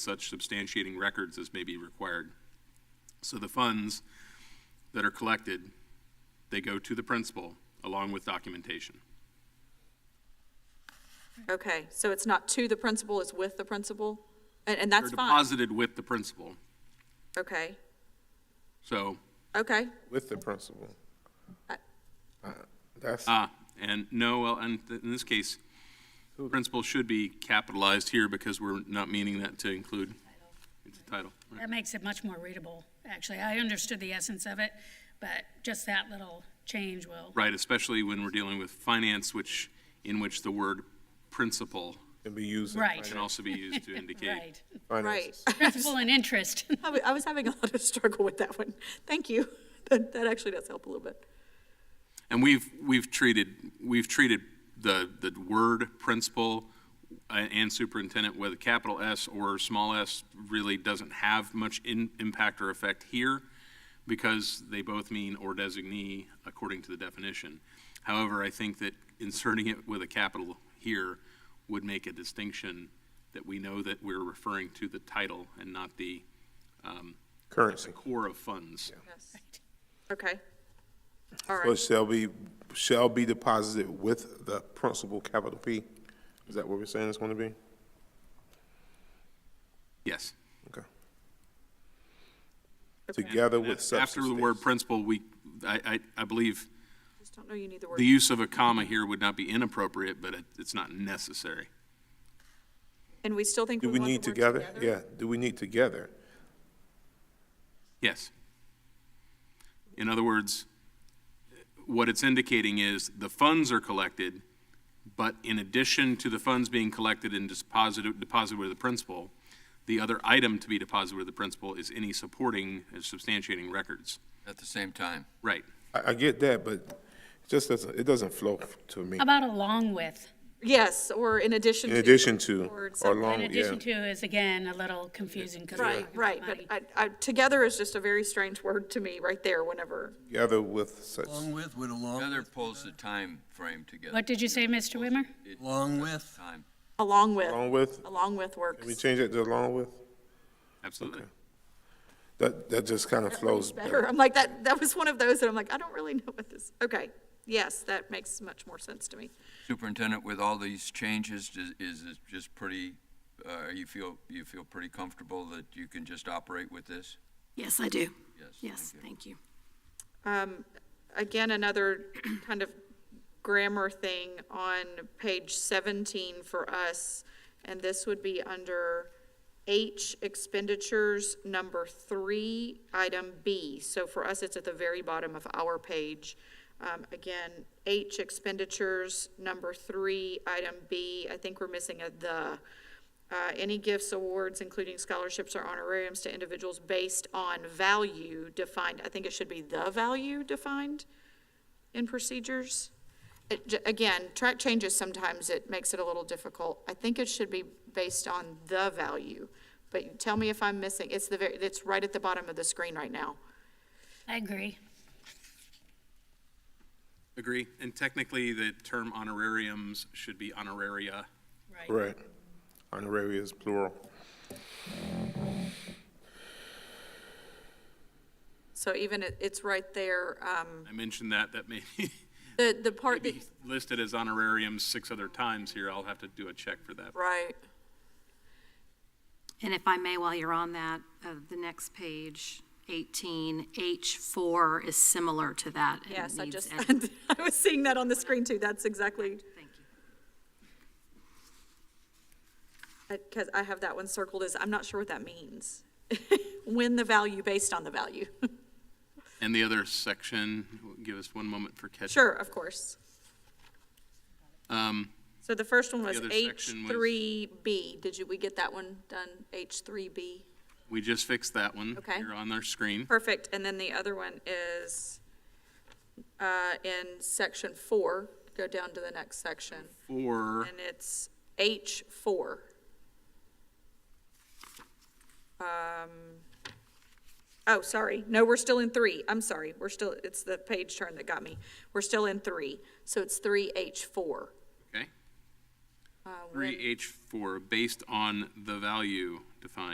such substantiating records as may be required. So the funds that are collected, they go to the principal along with documentation. Okay, so it's not to the principal, it's with the principal? And, and that's They're fine? deposited with the principal. Okay, So, okay, With the principal. I- Uh, That's, ah, and no, well, and th- in this case, principal should be capitalized here because we're not meaning that to include. It's a title. right. That makes it much more readable, actually. I understood the essence of it, but just that little change will, Right, especially when we're dealing with finance, which, in which the word principal can be used. in Right. can finan- also be used to indicate. right. right. finances. Principal and interest. I wa- I was having a lot of struggle with that one. Thank you. That, that actually does help a little bit. And we've, we've treated, we've treated the, the word principal uh, and superintendent with a capital S or small s really doesn't have much in, impact or effect here because they both mean or designee according to the definition. However, I think that inserting it with a capital here would make a distinction that we know that we're referring to the title and not the Currency. core of funds. Yes. Okay. All So it right, shall be, shall be deposited with the principal, capital P. Is that what we're saying it's going to be? Yes. Okay. Together with such. After the word principal, we, I, I, I believe just don't know you need the the word. use of a comma here would not be inappropriate, but it, it's not necessary. And we still think Do we we want the need word together? Yeah, do we need together? Yes. In other words, what it's indicating is the funds are collected, but in addition to the funds being collected and deposited, deposited with the principal, the other item to be deposited with the principal is any supporting and substantiating records. At the same time. Right. I, I get that, but it just doesn't, it doesn't flow to me. How about along with? Yes, or in addition In to. addition to, Or or something. In along, yeah. addition to is again a little confusing because. Right, right, but I, I, together is just a very strange word to me right there whenever. Together with such, Along with, would along, Heather pulls the time frame together. What did you say, Mr. Wimmer? along with, Time. Along with, along with, along with works. can we change it to along with? Absolutely. That, that just kind of flows better. better. I'm like, that, that was one of those that I'm like, I don't really know what this, okay. Yes, that makes much more sense to me. Superintendent, with all these changes, does- is it just pretty, uh, you feel, you feel pretty comfortable that you can just operate with this? Yes, I do. Yes, Yes, thank you. thank you. Um, again, another kind of grammar thing on page seventeen for us, and this would be under H expenditures, number three, item B. So for us, it's at the very bottom of our page. Um, again, H expenditures, number three, item B, I think we're missing a the. Uh, any gifts, awards, including scholarships or honorariums to individuals based on value defined, I think it should be the value defined in procedures. It j- Again, track changes, sometimes it makes it a little difficult. I think it should be based on the value, but tell me if I'm missing, it's the, ver- it's right at the bottom of the screen right now. I agree. Agree. And technically, the term honorariums should be honoraria. Right. Honorary is plural. So even it, it's right there, um, I mentioned that, that may the, the part that, be listed as honorariums six other times here. I'll have to do a check for that. right. And if I may, while you're on that, uh, the next page, 18, H4 is similar to that. and Yes, I needs just, edit. I was seeing that on the screen too, that's exactly. Thank you. Because I have that one circled as, I'm not sure what that means. When the value based on the value. And the other section, give us one moment for catch. Sure, of course. Um, So the first one was other section was- H3B. Did you, we get that one done? H3B? we just fixed that one. Okay. Here on our screen. Perfect. And then the other one is uh, in section four, go down to the next section, Four, and it's H4. Um, Oh, sorry. No, we're still in three. I'm sorry. We're still, it's the page turn that got me. We're still in three. So it's 3H4. okay. Uh, when- Three H four, based on the value defined.